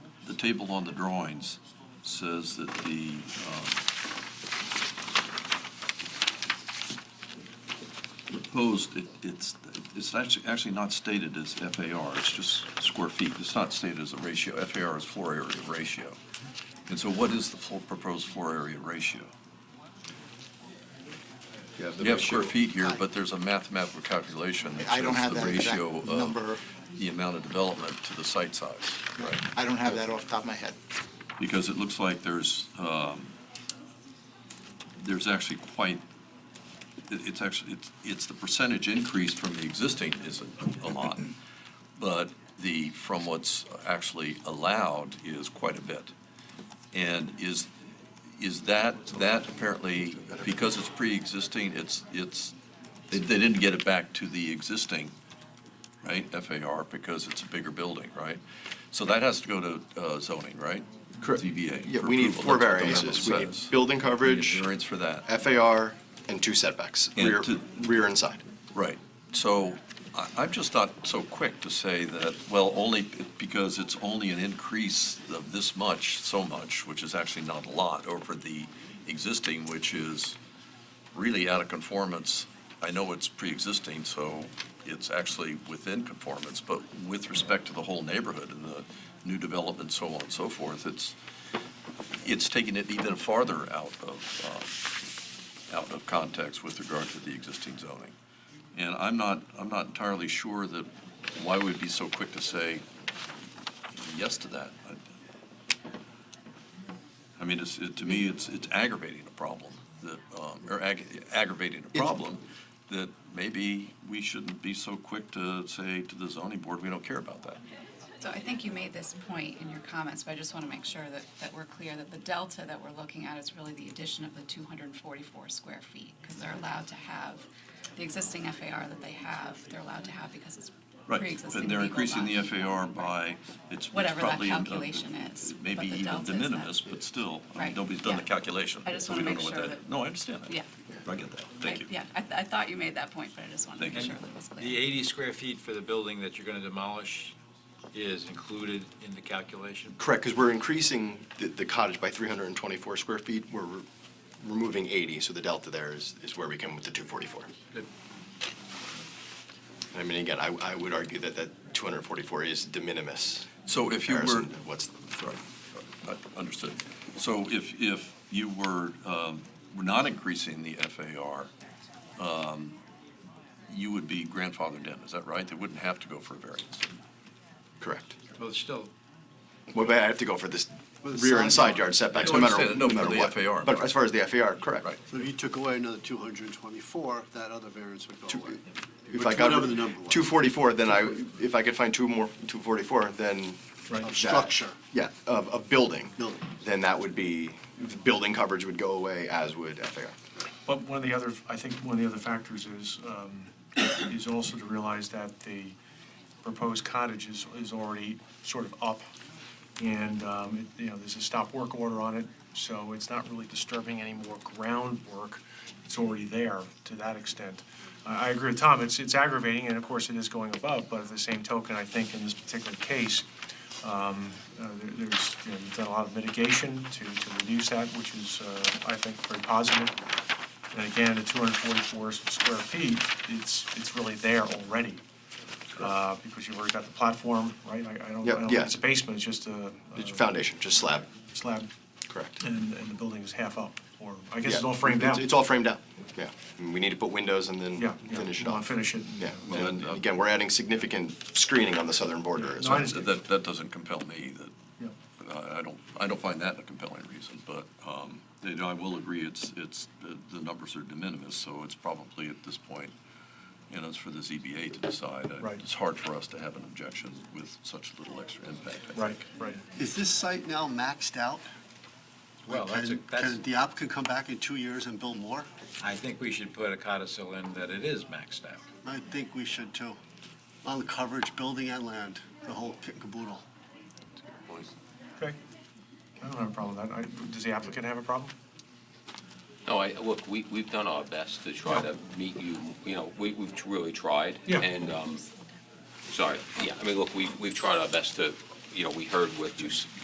table on the drawings says that the, uh, proposed, it, it's, it's actually, actually not stated as FAR, it's just square feet. It's not stated as a ratio. FAR is floor area ratio. And so what is the full proposed floor area ratio? You have the You have square ratio. feet here, but there's a mathematical calculation that I don't shows have the that exact ratio number. of the amount of development to the site size. Right. I don't have that off the top of my head. because it looks like there's, um, there's actually quite, it- it's actually, it's, it's the percentage increase from the existing is a- a lot, but the, from what's actually allowed is quite a bit. And is, is that, that apparently, because it's pre-existing, it's, it's, they they didn't get it back to the existing, right, FAR, because it's a bigger building, right? So that has to go to uh, zoning, right? Correct. ZBA. Yeah, for we need approval. four That's what the memo variances. We need says. building We need coverage, Variance for that, FAR, and two setbacks, And rear, two- rear and side. right. So I, I'm just not so quick to say that, well, only because it's only an increase of this much, so much, which is actually not a lot over the existing, which is really out of conformance. I know it's pre-existing, so it's actually within conformance, but with respect to the whole neighborhood and the new development, so on and so forth, it's, it's taking it even farther out of, um, out of context with regard to the existing zoning. And I'm not, I'm not entirely sure that, why we'd be so quick to say yes to that. I- I mean, it's, it- to me, it's, it's aggravating a problem that, um, or ag- aggravating a problem that maybe we shouldn't be so quick to say to the zoning board, we don't care about that. So I think you made this point in your comments, but I just want to make sure that, that we're clear that the delta that we're looking at is really the addition of the two hundred and forty-four square feet, because they're allowed to have the existing FAR that they have, they're allowed to have because it's Right, pre-existing and they're legal increasing the lot. FAR by, it's it's Whatever that probably. um, calculation is, Maybe but the even delta de is that- minimis, but still, I mean, Right, nobody's done the yeah. calculation. I just so wanna we don't make know what sure that- that- No, I understand that. Yeah. I get that, thank you. Yeah, I, I thought you made that point, but I just wanted to make Thank sure you. that was The clear. 80 square feet for the building that you're going to demolish is included in the calculation? Correct, because we're increasing the- the cottage by 324 square feet. We're re- removing 80, so the delta there is, is where we come with the 244. Good. I mean, again, I, I would argue that that 244 is de minimis So if you were, comparison to what's, sorry, uh, understood. So if, if you were, um, were not increasing the FAR, um, you would be grandfathered in, is that right? They wouldn't have to go for a variance. correct. Well, it's still, Well, but I have to go for this Well, the rear and side side yard setbacks, No, no I matter, understand. no No, matter for the what. FAR, But right. as far as the FAR, correct. Right. So if you took away another 224, that other variance would go Two- away. If I got Whatever the number was. 244, then I, if I could find two more, 244, then. that- Of structure. Yeah, of, of building. Building. Then that would be, the building coverage would go away, as would FAR. But one of the other, I think one of the other factors is, um, is also to realize that the proposed cottage is, is already sort of up. And, um, it- you know, there's a stop work order on it, so it's not really disturbing any more groundwork. It's already there to that extent. I, I agree with Tom, it's, it's aggravating, and of course it is going above, but at the same token, I think in this particular case, uh, there- There's, you know, we've done a lot of mitigation to, to reduce that, which is, uh, I think, very positive. And again, the 244 square feet, it's, it's really there already, uh, because you've already got the platform, right? I I don't, Yep, I don't yeah. think it's a basement, it's just a a It's Foundation, just slab, slab, correct. and, and the building is half up, or I guess Yeah. it's all framed It's- out. It's all framed out, yeah. And We need to put windows and then Yeah, yeah, finish it well, off. finish it. Yeah, Well, and and- again, we're adding significant screening on the southern border as No, I well. understand. That, that doesn't compel me, that Yeah. I I don't, I don't find that a compelling reason, but um, you know, I will agree, it's, it's, the the numbers are de minimis, so it's probably at this point, you know, it's for the ZBA to decide. Uh, Right. It's hard for us to have an objection with such little extra impact, I think. Right, right. Is this site now maxed out? well, that's, a- Can- that's, Can the applicant come back in two years and build more? I think we should put a codicil in that it is maxed out. I think we should too. On the coverage, building and land, the whole kit and caboodle. Okay. I don't have a problem with that. I- Does the applicant have a problem? No, I, look, we, we've done our best to try to meet you, you know, we, we've really tried. Yeah. And, um, sorry, yeah, I mean, look, we've, we've tried our best to, you know, we heard what you, s-